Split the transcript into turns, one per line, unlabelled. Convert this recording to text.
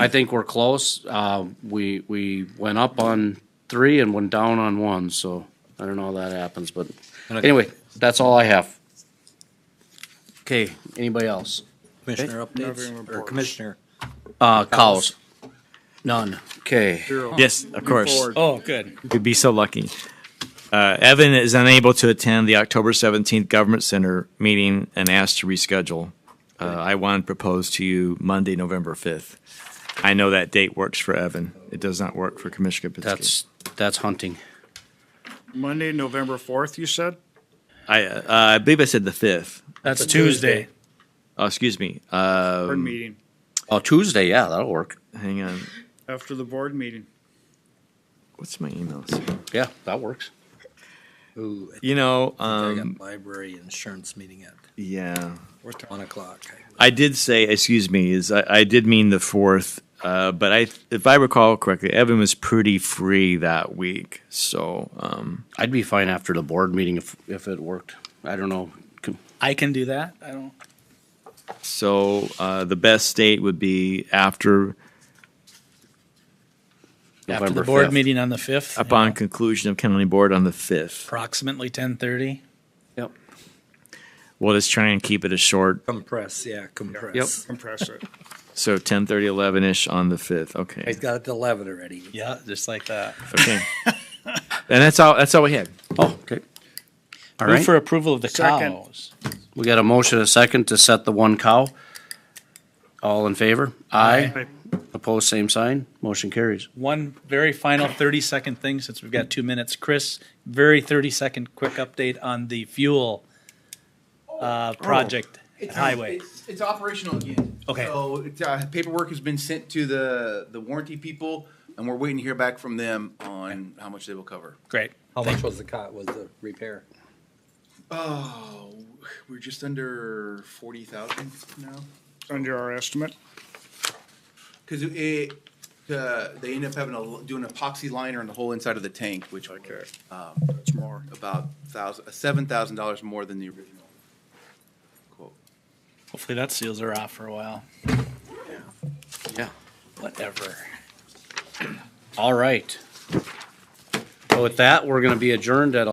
I think we're close. Uh, we, we went up on three and went down on one, so I don't know how that happens, but
And I-
anyway, that's all I have. Okay, anybody else?
Commissioner updates, or Commissioner?
Uh, cows? None. Okay.
Yes, of course.
Oh, good.
You could be so lucky. Uh, Evan is unable to attend the October 17th Government Center meeting and asked to reschedule. Uh, I want to propose to you Monday, November 5th. I know that date works for Evan. It does not work for Commissioner Kapinski.
That's, that's hunting.
Monday, November fourth, you said?
I, uh, I believe I said the 5th.
That's Tuesday.
Oh, excuse me. Uh,
Board meeting,
Oh, Tuesday, yeah, that'll work.
hang on.
after the board meeting.
What's my email?
Yeah, that works.
Ooh,
You know,
I
um,
got library insurance meeting at
yeah.
one o'clock.
I did say, excuse me, is I, I did mean the fourth, uh, but I, if I recall correctly, Evan was pretty free that week. So, um,
I'd be fine after the board meeting if, if it worked. I don't know. Com-
I can do that. I don't.
so uh, the best date would be after,
After
November
the board
5th.
meeting on the fifth,
upon conclusion of county board on the fifth.
approximately ten thirty.
Yep.
We'll just try and keep it as short.
Compress, yeah, compress.
Compress it.
So 10, 11 ish on the fifth.
He's
Okay.
got it to eleven already.
Yeah, just like that.
Okay. and that's all, that's all we had.
Oh, okay. All
Move
right.
for approval of the
Second.
cows.
We got a motion, and a second to set the one cow. All in favor? Aye. Opposed, same sign. Motion carries.
One very final thirty second thing since we've got two minutes. Chris, very thirty second quick update on the fuel uh,
Oh.
project at
It's
highway.
It's, it's operational again.
Okay.
So it's, uh, paperwork has been sent to the the warranty people, and we're waiting to hear back from them on how much they will cover.
Great.
How much was the cot, was the repair?
Oh, we're just under forty thousand now
Under our estimate.
because it. Uh, they end up having a doing epoxy liner on the whole inside of the tank, which was
Okay.
um,
It's more.
about thousand seven thousand dollars more than the original quote.
Hopefully that seals her off for a while.
Yeah.
Whatever.
All right. So with that, we're gonna be adjourned at